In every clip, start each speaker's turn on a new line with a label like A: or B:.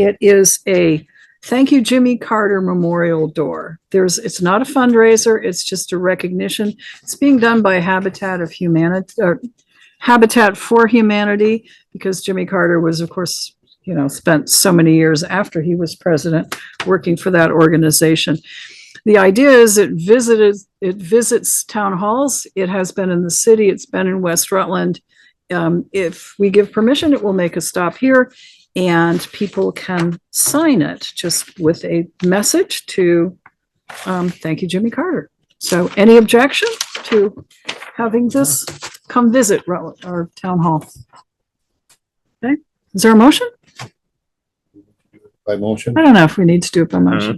A: It is a Thank You Jimmy Carter Memorial Door. There's, it's not a fundraiser, it's just a recognition. It's being done by Habitat of Humanity, or Habitat for Humanity, because Jimmy Carter was, of course, you know, spent so many years after he was president working for that organization. The idea is it visited, it visits town halls. It has been in the city, it's been in West Rutland. Um, if we give permission, it will make a stop here and people can sign it just with a message to, um, thank you, Jimmy Carter. So any objection to having this come visit Rutland, our town hall? Okay, is there a motion?
B: By motion?
A: I don't know if we need to do it by motion.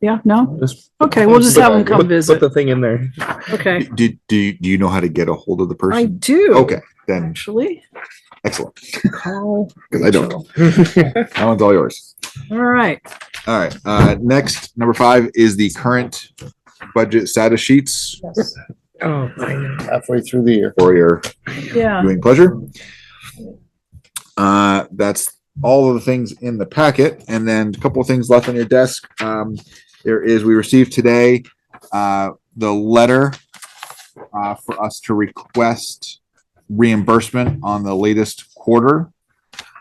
C: Uh-huh.
A: Yeah, no? Okay, we'll just have them come
D: Put, put
A: visit.
D: the thing in there.
A: Okay,
C: Do, do, do you know how to get a hold of the
A: I
C: person?
A: do.
C: Okay, then
A: Actually,
C: excellent.
A: call.
C: Because I don't.
A: Rachel.
C: That one's all yours.
A: All right,
C: All right. Uh, next, number five is the current budget status sheets
A: yes,
D: Oh, my
B: Halfway through the year.
C: for your
A: yeah,
C: viewing pleasure. Uh, that's all of the things in the packet, and then a couple of things left on your desk. Um, there is, we received today, uh, the letter uh, for us to request reimbursement on the latest quarter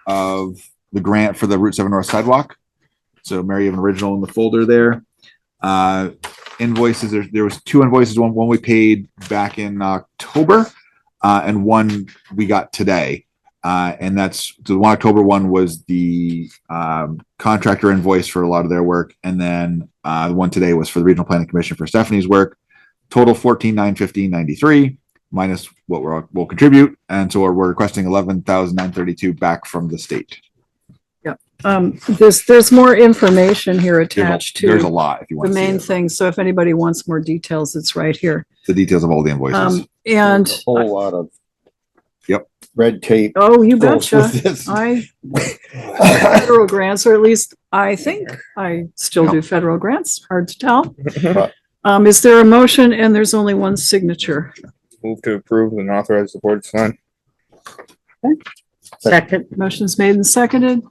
C: of the grant for the Route Seven North Sidewalk. So Mary, you have an original in the folder there. Uh, invoices, there, there was two invoices, one, one we paid back in October, uh, and one we got today. Uh, and that's the one October one was the um, contractor invoice for a lot of their work, and then uh, the one today was for the Regional Planning Commission for Stephanie's work. Total fourteen nine fifteen ninety three minus what we're we'll contribute, and so we're, we're requesting eleven thousand nine thirty two back from the state.
A: um, there's, there's more information here
C: There's a-
A: attached
C: There's a
A: to
C: lot if you
A: the
C: want to see
A: main
C: it.
A: thing, so if anybody wants more details, it's right here.
C: the details of all the invoices.
A: Um, and,
B: There's a Whole lot of.
C: Yep.
B: Red tape.
A: oh, you
B: goes
A: betcha,
B: with this.
A: I, federal grants, or at least I think I still do federal grants, hard to tell.
B: But-
A: Um, is there a motion, and there's only one signature?
D: Move to approve and authorize the board to sign.
E: Second,
A: Motion's made and seconded.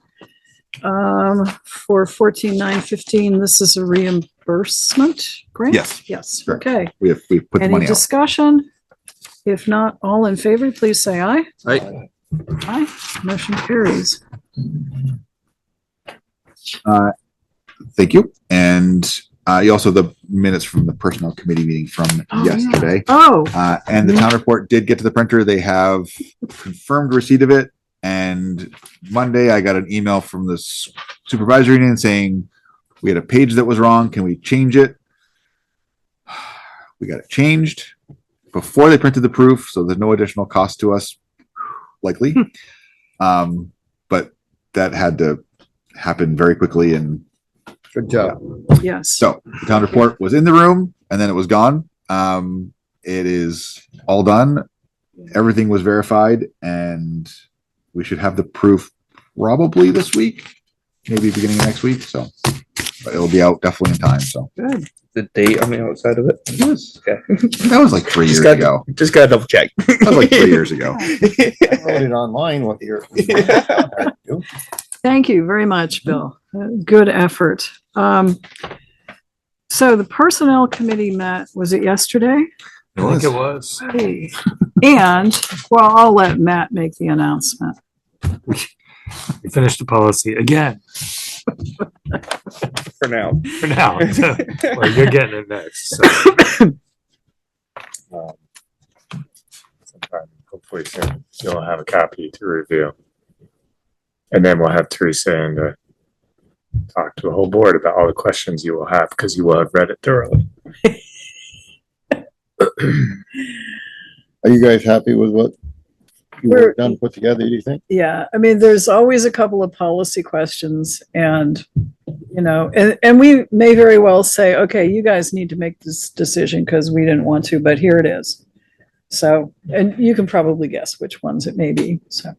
A: Um, for fourteen nine fifteen, this is a reimbursement grant?
C: Yes.
A: Yes,
C: Correct.
A: okay.
C: We have we have put the
A: Any
C: money out.
A: discussion? If not, all in favor, please say aye.
B: Aye.
A: Aye, motion carries.
C: Thank you. And uh, you also the minutes from the personnel committee meeting from
A: Oh, yeah.
C: yesterday.
A: Oh,
C: Uh, and the town report did get to the printer. They have confirmed receipt of it. And Monday I got an email from the s- supervisory union saying we had a page that was wrong. Can we change it? We got it changed before they printed the proof, so there's no additional cost to us likely. Um, but that had to happen very quickly and
B: Good job.
A: yes.
C: so the town report was in the room and then it was gone. Um, it is all done. Everything was verified and we should have the proof probably this week, maybe beginning of next week. So but it'll be out definitely in time. So
A: Good.
D: The date on the outside of it. Yes. Okay.
C: that was like three years
D: Just got-
C: ago.
D: Just gotta double check.
C: That was like three years ago.
B: Voted online what you're.
A: Thank you very much, Bill. Uh, Good effort. Um, so the personnel committee met, was it yesterday?
C: It was.
D: was.
A: Hey. And, well, I'll let Matt make the announcement.
F: We finished the policy again
D: For now.
F: for now. Well, you're getting it next. so.
G: um, sometime, hopefully soon, you'll have a copy to review. And then we'll have Teresa in to talk to the whole board about all the questions you will have, because you will have read it thoroughly.
B: Are you guys happy with what you
A: We're-
B: have done, put together, do you think?
A: Yeah, I mean, there's always a couple of policy questions and, you know, and, and we may very well say, okay, you guys need to make this decision because we didn't want to, but here it is. So, and you can probably guess which ones it may be, so.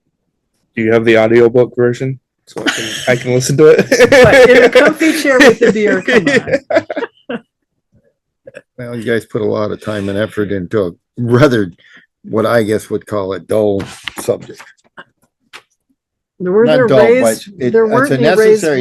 D: Do you have the audiobook version? So I can, I can listen to
A: But in a
D: it.
A: comfy chair with the beer, come on.
B: Well, you guys put a lot of time and effort into a rather, what I guess would call a dull subject.
A: Were there
B: Not dull, but
A: raised,
B: it-
A: there
B: it's a
A: weren't any raised
B: necessary